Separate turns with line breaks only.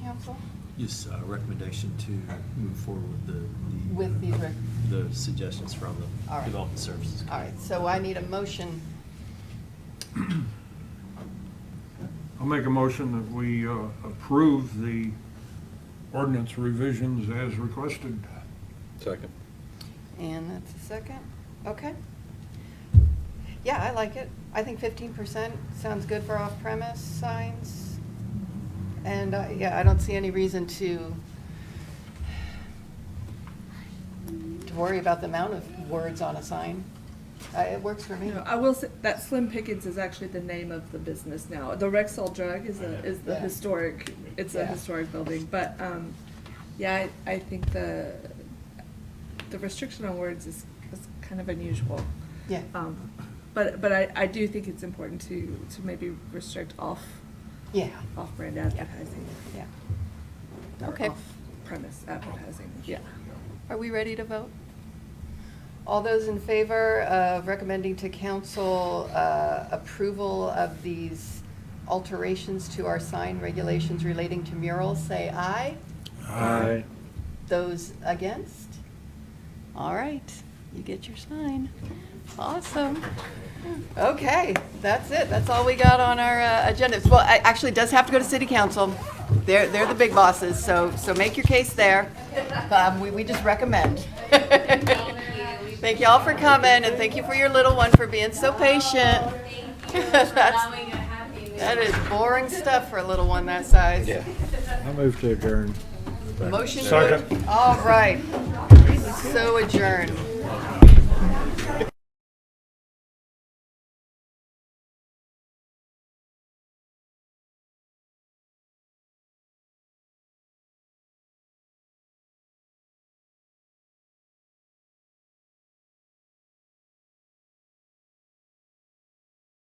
council?
Yes, uh, recommendation to move forward with the. the, uh,
With the rec-
The suggestions from
All
the
right.
Development Services.
All right, so I need a motion.
I'll make a motion that we uh, approve the ordinance revisions as requested.
Second.
And that's a second, okay. Yeah, I like it. I think fifteen percent sounds good for off-premise signs. And, uh, yeah, I don't see any reason to, to worry about the amount of words on a sign. Uh, It works for me.
No, I will say that Slim Pickens is actually the name of the business now. The Rexall Drug is a, is the
Yeah.
historic, it's a
Yeah.
historic building, but, um, yeah, I, I think the, the restriction on words is, is kind of unusual.
Yeah.
Um, but, but I, I do think it's important to, to maybe restrict off,
Yeah,
off-brand advertising.
yeah.
or
Okay.
Off-premise advertising, yeah.
Are we ready to vote? All those in favor of recommending to council uh, approval of these alterations to our sign regulations relating to murals, say aye.
Aye.
Those against? All right, you get your sign. Awesome. Okay, that's it. That's all we got on our uh, agenda. Well, it actually does have to go to city council. They're, they're the big bosses, so, so make your case there. Um, We, we just recommend. Thank y'all for coming, and thank you for your little one for being so patient.
Thank you for
That's-
allowing a happy.
That is boring stuff for a little one that size.
I move to adjourn.
Motion. to-
Second.
All right. So adjourned.